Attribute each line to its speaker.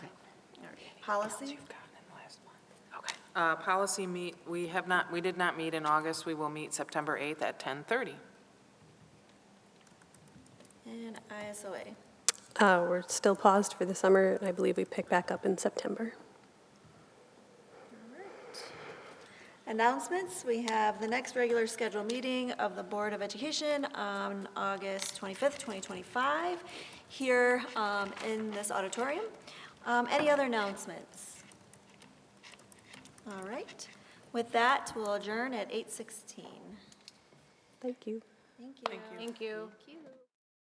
Speaker 1: policy?
Speaker 2: Uh, Policy meet, we have not, we did not meet in August. We will meet September 8th at 10:30.
Speaker 1: And ISOA.
Speaker 3: Uh, We're still paused for the summer, and I believe we pick back up in September.
Speaker 1: Announcements, we have the next regular scheduled meeting of the Board of Education on August 25th, 2025, here um, in this auditorium. Um, Any other announcements? All right, with that, we'll adjourn at 8:16.
Speaker 3: Thank
Speaker 1: Thank
Speaker 3: you.
Speaker 1: you. Thank you. Thank you.